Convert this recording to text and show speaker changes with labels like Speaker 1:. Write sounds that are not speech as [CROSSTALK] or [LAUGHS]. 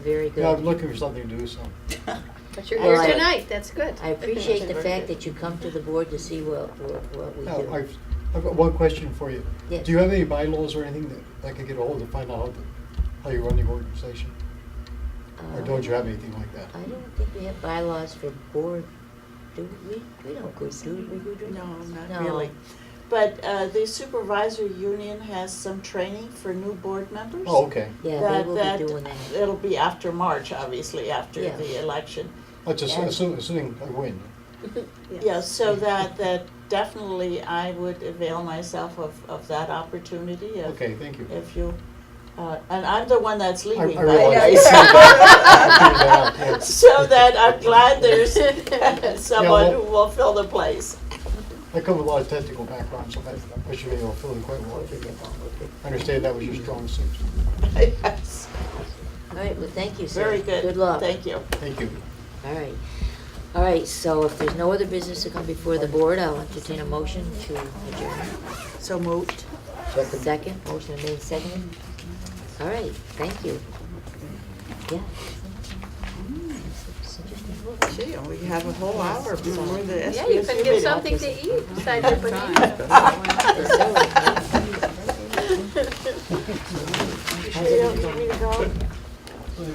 Speaker 1: Very
Speaker 2: Yeah, I'm
Speaker 1: good.
Speaker 2: looking for something to do, so.
Speaker 3: [LAUGHS] But you're
Speaker 1: Well, I-
Speaker 3: here tonight, that's good.
Speaker 1: I appreciate the fact that you come to the board to see what, what what we
Speaker 2: Now,
Speaker 1: do.
Speaker 2: Oh, I've, I've got one question for you.
Speaker 1: Yes.
Speaker 2: Do you have any bylaws or anything that I could get a hold of, find out how the- how you run your organization? Or
Speaker 1: Um,
Speaker 2: don't you have anything like that?
Speaker 1: I don't think we have bylaws for board, do we? We don't go, do we, Gudrun?
Speaker 4: No,
Speaker 1: No.
Speaker 4: not really. But uh, the supervisor union has some training for new board members.
Speaker 2: Oh, okay.
Speaker 1: Yeah, they will
Speaker 4: that-
Speaker 1: be doing
Speaker 4: that-
Speaker 1: that.
Speaker 4: It'll be after March, obviously, after
Speaker 1: Yeah.
Speaker 4: the election.
Speaker 2: I just,
Speaker 4: And-
Speaker 2: assuming, assuming I win.
Speaker 4: Yeah, so that, that definitely I would avail myself of, of that opportunity if,
Speaker 2: Okay, thank you.
Speaker 4: if you, uh, and I'm the one that's
Speaker 2: I I
Speaker 4: leaving, by the way.
Speaker 2: realize. I figured it [LAUGHS] out, yes.
Speaker 4: [LAUGHS] So that I'm glad there's [LAUGHS] someone
Speaker 2: well-
Speaker 4: who will fill the place. [LAUGHS]
Speaker 2: I come with a lot of technical background, so that, I should be able to fill in quite well. I understand that was your strong suit.
Speaker 4: Yes.
Speaker 1: All right, well, thank you, sir.
Speaker 4: Very good.
Speaker 1: Good luck.
Speaker 4: Thank you.
Speaker 2: Thank you.
Speaker 1: All right. All right, so if there's no other business to come before the board, I'll entertain a motion to adjourn.
Speaker 4: So moved.
Speaker 1: Second, motion made second. All right, thank you. Yeah.
Speaker 4: Gee, we have a whole hour before the SBSU
Speaker 3: Yeah, you can get something to eat
Speaker 4: [LAUGHS]
Speaker 3: besides your [LAUGHS] banana.
Speaker 1: It's all right.
Speaker 3: [LAUGHS]
Speaker 4: You don't need me to go?